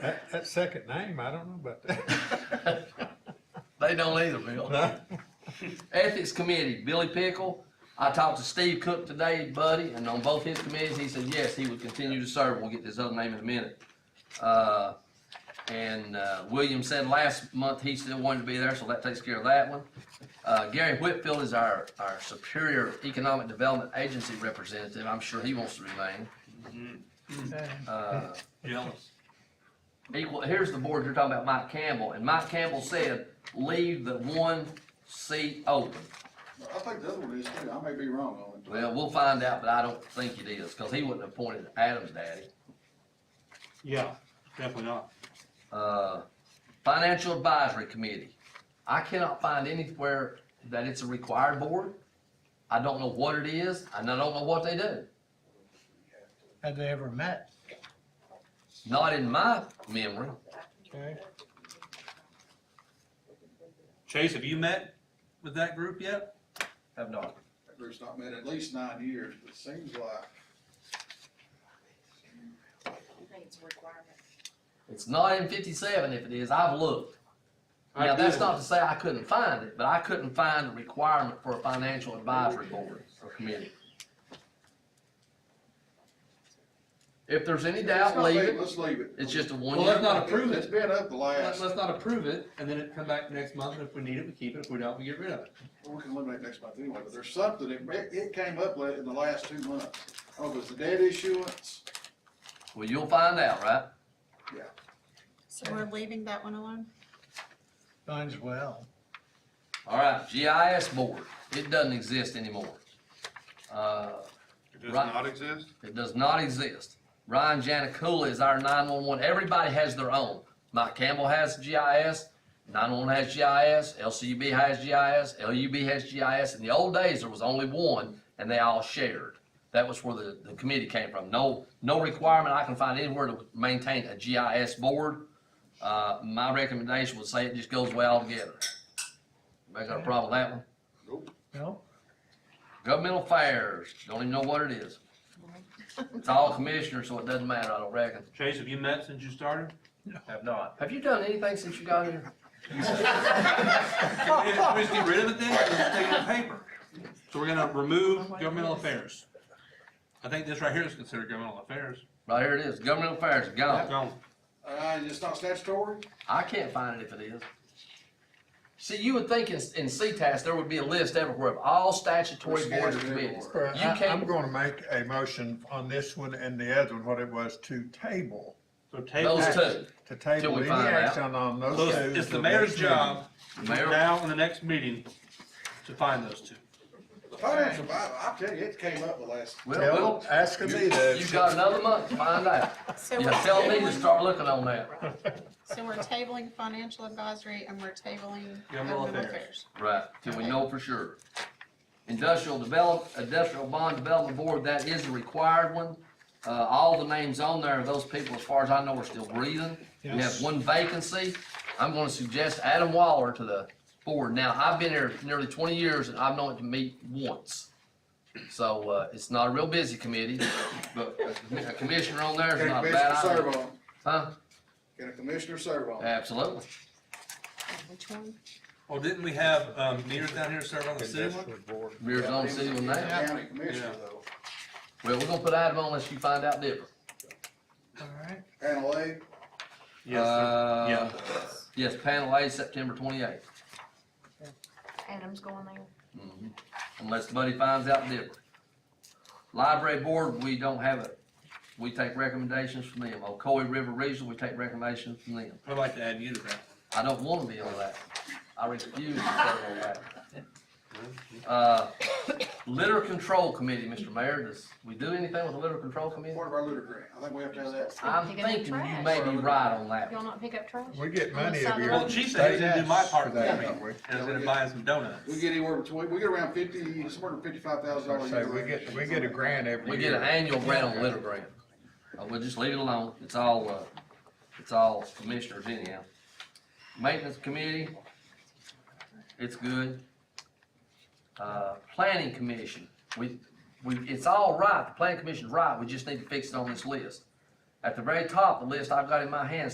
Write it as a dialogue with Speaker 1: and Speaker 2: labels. Speaker 1: That, that second name, I don't know about that.
Speaker 2: They don't either, Bill.
Speaker 1: No?
Speaker 2: Ethics Committee, Billy Pickle. I talked to Steve Cook today, buddy, and on both his committees, he said, yes, he would continue to serve. We'll get this other name in a minute. Uh, and, uh, William said last month he still wanted to be there, so that takes care of that one. Uh, Gary Whitfield is our, our Superior Economic Development Agency representative. I'm sure he wants to remain. Uh,
Speaker 3: Jealous.
Speaker 2: equal, here's the board, you're talking about Mike Campbell, and Mike Campbell said, leave the one seat open.
Speaker 4: I think the other one is too, I may be wrong on it.
Speaker 2: Well, we'll find out, but I don't think it is, cause he wouldn't have appointed Adam's daddy.
Speaker 3: Yeah, definitely not.
Speaker 2: Uh, Financial Advisory Committee, I cannot find anywhere that it's a required board. I don't know what it is, and I don't know what they do.
Speaker 5: Have they ever met?
Speaker 2: Not in my memory.
Speaker 5: Okay.
Speaker 3: Chase, have you met with that group yet?
Speaker 2: Have not.
Speaker 4: That group's not met at least nine years, but it seems like
Speaker 6: I think it's a requirement.
Speaker 2: It's not in fifty-seven, if it is, I've looked. Now, that's not to say I couldn't find it, but I couldn't find a requirement for a financial advisory board or committee. If there's any
Speaker 4: Let's
Speaker 2: doubt,
Speaker 4: not
Speaker 2: leave
Speaker 4: leave-
Speaker 2: it.
Speaker 4: Let's leave it.
Speaker 2: It's just a
Speaker 3: Well, let's
Speaker 2: one-year.
Speaker 3: not approve
Speaker 4: It's
Speaker 3: it.
Speaker 4: been up the
Speaker 3: Let's,
Speaker 4: last,
Speaker 3: let's not approve it, and then it come back next month, and if we need it, we keep it, if we don't, we get rid of it.
Speaker 4: well, we can eliminate next month anyway, but there's something, that- it, it came up la- in the last two months. Oh, it was the debt issuance,
Speaker 2: Well, you'll find out, right?
Speaker 6: So we're leaving that one alone?
Speaker 5: Mine's well.
Speaker 2: All right, GIS board, it doesn't exist anymore. Uh,
Speaker 7: It does
Speaker 2: Right.
Speaker 7: not exist?
Speaker 2: it does not exist. Ryan Janikula is our nine-one-one, everybody has their own. Mike Campbell has GIS, nine-one has GIS, LCUB has GIS, LUB has GIS. In the old days, there was only one, and they all shared. That was where the, the committee came from. No, no requirement I can find anywhere to maintain a GIS board. Uh, my recommendation would say it just goes away altogether. Anybody got a problem with that one?
Speaker 5: No?
Speaker 2: Governmental affairs, don't even know what it is. It's all commissioners, so it doesn't matter, I don't reckon.
Speaker 3: Chase, have you met since you started?
Speaker 2: Have not. Have you done anything since you got here?
Speaker 3: Can we can we just get rid of it then, or just take it on paper? So we're gonna remove governmental affairs. I think this right here is considered governmental affairs.
Speaker 2: Right here it is, governmental affairs, gone.
Speaker 3: Gone.
Speaker 4: uh, it's not statutory?
Speaker 2: I can't find it if it is. See, you would think in, in CTAS, there would be a list everywhere of all statutory boards and committees.
Speaker 4: Everywhere.
Speaker 2: You
Speaker 8: I- I'm
Speaker 2: can't,
Speaker 8: gonna make a motion on this one and the other one, what it was, to table,
Speaker 3: So table.
Speaker 2: those two,
Speaker 8: to
Speaker 2: Till
Speaker 8: table
Speaker 2: we
Speaker 8: any
Speaker 2: find out.
Speaker 8: action on those
Speaker 3: So
Speaker 8: two.
Speaker 3: it's it's the
Speaker 8: till
Speaker 3: mayor's
Speaker 8: next meeting.
Speaker 3: job,
Speaker 2: Mayor.
Speaker 3: now in the next meeting, to find those two.
Speaker 4: The financial, I, I tell you, it came up the last,
Speaker 2: well,
Speaker 8: Tell,
Speaker 2: well,
Speaker 8: ask Anita.
Speaker 2: you've got another month to find out.
Speaker 6: So
Speaker 2: You
Speaker 6: we're
Speaker 2: tell me to
Speaker 6: tabling-
Speaker 2: start looking on that.
Speaker 6: So we're tabling financial advisory and we're tabling
Speaker 3: Governmental
Speaker 6: governmental
Speaker 3: affairs.
Speaker 6: affairs.
Speaker 2: Right, till we know for sure. Industrial develop, industrial bond development board, that is a required one. Uh, all the names on there, those people, as far as I know, are still breathing. We have
Speaker 5: Yes.
Speaker 2: one vacancy. I'm gonna suggest Adam Waller to the board. Now, I've been here nearly twenty years and I've known it to meet once. So, uh, it's not a real busy committee, but a commi- a commissioner on there
Speaker 4: can
Speaker 2: is
Speaker 4: a
Speaker 2: not a
Speaker 4: commissioner
Speaker 2: bad
Speaker 4: serve
Speaker 2: idea.
Speaker 4: on? it?
Speaker 2: Huh?
Speaker 4: Can a commissioner serve on? it?
Speaker 2: Absolutely.
Speaker 6: Which one?
Speaker 3: Well, Oh, didn't we have, um, meters down here serve on the city one?
Speaker 1: Industrial board.
Speaker 2: Rears on city one now.
Speaker 4: County commissioner though,
Speaker 2: Well, we're gonna put Adam on unless you find out different.
Speaker 5: All right.
Speaker 4: panel A,
Speaker 3: Yes, sir.
Speaker 2: Uh,
Speaker 3: Yeah.
Speaker 2: Yes, panel A, September twenty-eighth,
Speaker 6: Adam's going there.
Speaker 2: Mm-hmm. unless Buddy finds out different. Library board, we don't have it. We take recommendations from them. Ocoee River Regional, we take recommendations from them.
Speaker 3: I'd like to add you to that.
Speaker 2: I don't wanna be on that. I refuse to serve on that. Uh, litter control committee, Mr. Mayor, does we do anything with the litter control committee?
Speaker 4: part of our litter grant, I think we have to have that.
Speaker 2: I'm thinking you may be right on that.
Speaker 9: Y'all not pick up trash?
Speaker 8: We get money every year.
Speaker 3: Well, the chief said he didn't do my part
Speaker 8: For
Speaker 3: for
Speaker 8: that,
Speaker 3: me,
Speaker 8: don't we?
Speaker 3: and I was gonna buy him some donuts.
Speaker 4: We get anywhere between, we get around fifty, somewhere around fifty-five thousand dollars.
Speaker 8: So we get, we get a grant every
Speaker 2: We
Speaker 8: year.
Speaker 2: get an annual grant on litter grant. Uh, we'll just leave it alone. It's all, uh, it's all commissioners anyhow. Maintenance committee, it's good. Uh, planning commission, we, we, it's all right. The planning commission's right. We just need to fix it on this list. At the very top, the list I've got in my hands